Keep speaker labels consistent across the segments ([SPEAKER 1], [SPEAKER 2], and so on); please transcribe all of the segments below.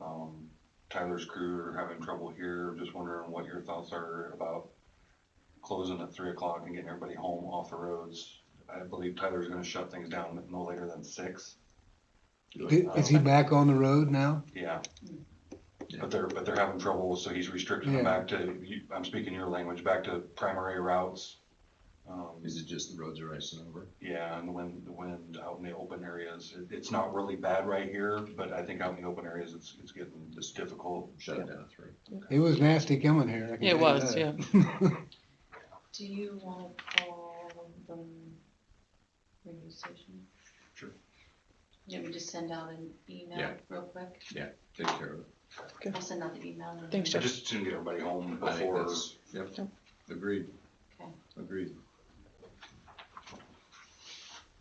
[SPEAKER 1] Um, Tyler's crew are having trouble here, just wondering what your thoughts are about closing at three o'clock and getting everybody home off the roads. I believe Tyler's gonna shut things down no later than six.
[SPEAKER 2] Is he back on the road now?
[SPEAKER 1] Yeah. But they're, but they're having trouble, so he's restricting them
[SPEAKER 2] Yeah.
[SPEAKER 1] back to, you- I'm speaking your language, back to primary routes. Um,
[SPEAKER 3] Is it just the roads are icing over?
[SPEAKER 1] Yeah, and the wind, the wind out in the open areas, it, it's not really bad right here, but I think out in the open areas, it's, it's getting, it's difficult.
[SPEAKER 3] Shut it down at three.
[SPEAKER 2] It was nasty coming here. I can tell
[SPEAKER 4] It
[SPEAKER 2] you
[SPEAKER 4] was,
[SPEAKER 2] that.
[SPEAKER 4] yeah.
[SPEAKER 5] Do you wanna call the radio station?
[SPEAKER 1] Sure.
[SPEAKER 5] Let me just send out an email
[SPEAKER 3] Yeah.
[SPEAKER 5] real quick.
[SPEAKER 3] Take care of it.
[SPEAKER 4] Okay.
[SPEAKER 5] I'll send out the email. and-
[SPEAKER 4] Thanks,
[SPEAKER 1] I
[SPEAKER 4] Jeff.
[SPEAKER 1] just to get everybody home
[SPEAKER 3] I think
[SPEAKER 1] before,
[SPEAKER 3] that's- Yep,
[SPEAKER 4] Yep.
[SPEAKER 3] agreed,
[SPEAKER 5] Okay.
[SPEAKER 3] agreed.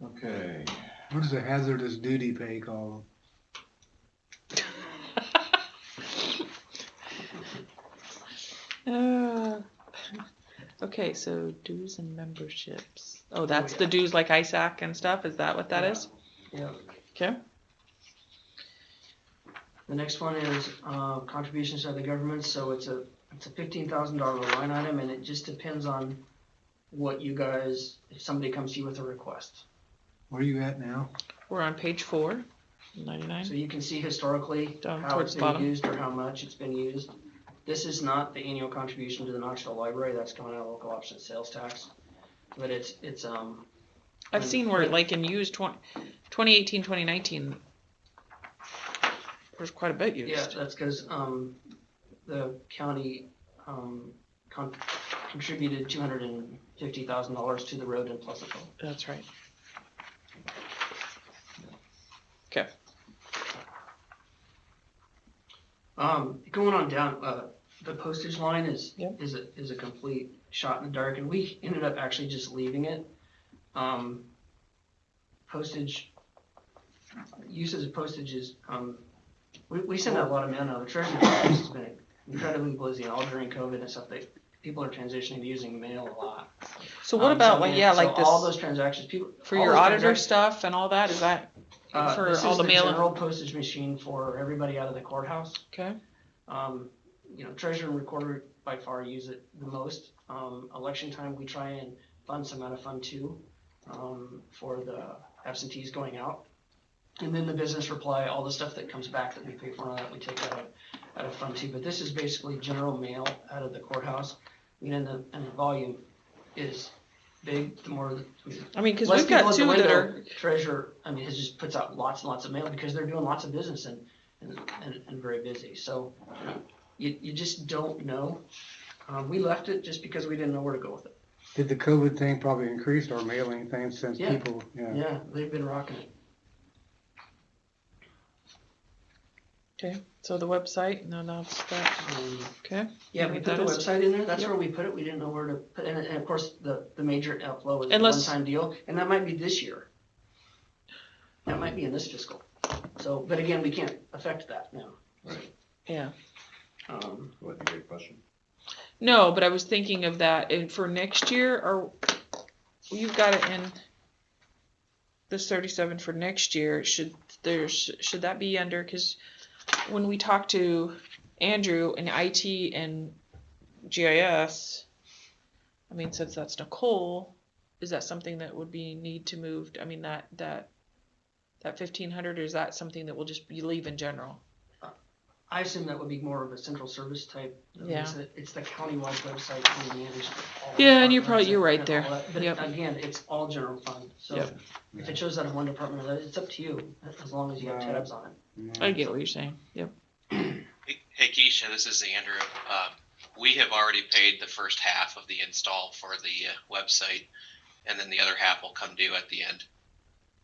[SPEAKER 3] Okay,
[SPEAKER 2] What does a hazardous duty pay call?
[SPEAKER 4] Uh, Okay, so dues and memberships. Oh, that's the dues like ISAC and stuff? Is that what that is?
[SPEAKER 6] Yeah.
[SPEAKER 4] Okay.
[SPEAKER 6] The next one is, uh, contributions to the government, so it's a, it's a fifteen thousand dollar line item, and it just depends on what you guys, if somebody comes to you with a request.
[SPEAKER 2] Where are you at now?
[SPEAKER 4] We're on page four,
[SPEAKER 6] So
[SPEAKER 4] ninety-nine.
[SPEAKER 6] you can see historically
[SPEAKER 4] Down
[SPEAKER 6] how
[SPEAKER 4] towards
[SPEAKER 6] it's
[SPEAKER 4] the
[SPEAKER 6] been
[SPEAKER 4] bottom.
[SPEAKER 6] used or how much it's been used. This is not the annual contribution to the Knoxville Library, that's coming out of local option sales tax, but it's, it's, um,
[SPEAKER 4] I've seen where like in used twenty, twenty eighteen, twenty nineteen. There's quite a bit
[SPEAKER 6] Yeah,
[SPEAKER 4] used.
[SPEAKER 6] that's because, um, the county, um, con- contributed two hundred and fifty thousand dollars to the road in Pleasantville.
[SPEAKER 4] That's right.
[SPEAKER 6] Um, going on down, uh, the postage line is,
[SPEAKER 4] Yep.
[SPEAKER 6] is a, is a complete shot in the dark, and we ended up actually just leaving it. Um, postage, uses of postage is, um, we, we send out a lot of mail now, the treasurer's office has been incredibly busy, all during COVID and stuff, they, people are transitioning to using mail a lot.
[SPEAKER 4] So what
[SPEAKER 6] Um,
[SPEAKER 4] about,
[SPEAKER 6] so,
[SPEAKER 4] like,
[SPEAKER 6] man,
[SPEAKER 4] yeah,
[SPEAKER 6] so
[SPEAKER 4] like
[SPEAKER 6] All
[SPEAKER 4] this,
[SPEAKER 6] those transactions, people.
[SPEAKER 4] for
[SPEAKER 6] all
[SPEAKER 4] your
[SPEAKER 6] those
[SPEAKER 4] auditor
[SPEAKER 6] transac-
[SPEAKER 4] stuff and all that, is that,
[SPEAKER 6] uh,
[SPEAKER 4] for
[SPEAKER 6] this
[SPEAKER 4] all
[SPEAKER 6] is
[SPEAKER 4] the mail-
[SPEAKER 6] General postage machine for everybody out of the courthouse.
[SPEAKER 4] okay?
[SPEAKER 6] Um, you know, treasurer and recorder by far use it the most. Um, election time, we try and fund some out of fund two, um, for the absentees going out. And then the business reply, all the stuff that comes back that we pay for, and all that we take out of, out of fund two, but this is basically general mail out of the courthouse. I mean, and the, and the volume is big, the more, the- I mean,
[SPEAKER 4] I mean, cause
[SPEAKER 6] less
[SPEAKER 4] we've got
[SPEAKER 6] people at
[SPEAKER 4] two
[SPEAKER 6] the
[SPEAKER 4] that
[SPEAKER 6] window,
[SPEAKER 4] are,
[SPEAKER 6] Treasurer, I mean, it just puts out lots and lots of mail because they're doing lots of business and, and, and, and very busy, so you, you just don't know. Um, we left it just because we didn't know where to go with it.
[SPEAKER 2] Did the COVID thing probably increase our mailing thing since
[SPEAKER 6] Yeah.
[SPEAKER 2] people, yeah.
[SPEAKER 6] Yeah, they've been rocking it.
[SPEAKER 4] okay, so the website, no, no, it's that,
[SPEAKER 6] Um,
[SPEAKER 4] okay?
[SPEAKER 6] Yeah, we
[SPEAKER 4] What
[SPEAKER 6] put
[SPEAKER 4] that
[SPEAKER 6] the
[SPEAKER 4] is?
[SPEAKER 6] website in there, that's
[SPEAKER 4] Yep.
[SPEAKER 6] where we put it, we didn't know where to, put and, and of course, the, the major outflow is a
[SPEAKER 4] Unless-
[SPEAKER 6] one-time deal, and that might be this year. That might be in this fiscal, so, but again, we can't affect that now.
[SPEAKER 4] Yeah.
[SPEAKER 6] Um,
[SPEAKER 3] well, that's a great question.
[SPEAKER 4] No, but I was thinking of that, and for next year, or, you've got it in this thirty-seven for next year, should, there, sh- should that be under, cause when we talked to Andrew in IT and GIS, I mean, since that's Nicole, is that something that would be need to move, I mean, that, that, that fifteen hundred, or is that something that will just be leave in general?
[SPEAKER 6] I assume that would be more of a central service type. I mean,
[SPEAKER 4] Yeah.
[SPEAKER 6] It's the- it's the countywide website that we manage. all the
[SPEAKER 4] Yeah, and you're probably-
[SPEAKER 6] departments
[SPEAKER 4] you're right
[SPEAKER 6] and all
[SPEAKER 4] there.
[SPEAKER 6] that. But
[SPEAKER 4] Yep.
[SPEAKER 6] Again, it's all general fund, so
[SPEAKER 4] Yep.
[SPEAKER 6] if it shows that in one department, or the other, it's up to you, as long as you have
[SPEAKER 2] Right.
[SPEAKER 6] tabs on it.
[SPEAKER 4] I get what you're saying, yep,
[SPEAKER 7] Hey- Hey Keisha, this is Andrew. Um, We have already paid the first half of the install for the uh, website, and then the other half will come due at the end.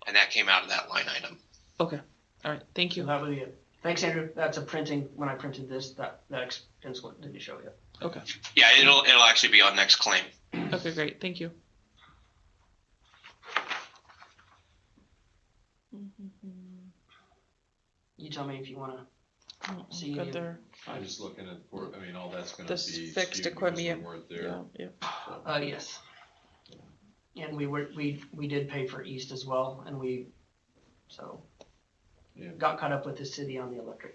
[SPEAKER 7] And that came out of that line item.
[SPEAKER 4] alright, thank you.
[SPEAKER 6] That would be it. Thanks, Andrew. That's a printing, when I printed this, that, that expense one didn't show yet.
[SPEAKER 7] Yeah, it'll, it'll actually be on next claim.
[SPEAKER 4] Okay, great, thank you. Mm-hmm.
[SPEAKER 6] You tell me if you wanna,
[SPEAKER 4] Mm,
[SPEAKER 6] See
[SPEAKER 4] got
[SPEAKER 6] you.
[SPEAKER 4] there.
[SPEAKER 3] I'm just looking at, for- I mean, all that's gonna be.
[SPEAKER 4] This fixed
[SPEAKER 3] skewed because
[SPEAKER 4] equipment,
[SPEAKER 3] we weren't there.
[SPEAKER 4] Yeah, yeah.
[SPEAKER 6] uh, yes. And we were, we, we did pay for East as well, and we, so,
[SPEAKER 3] Yeah.
[SPEAKER 6] got caught up with the city on the electric.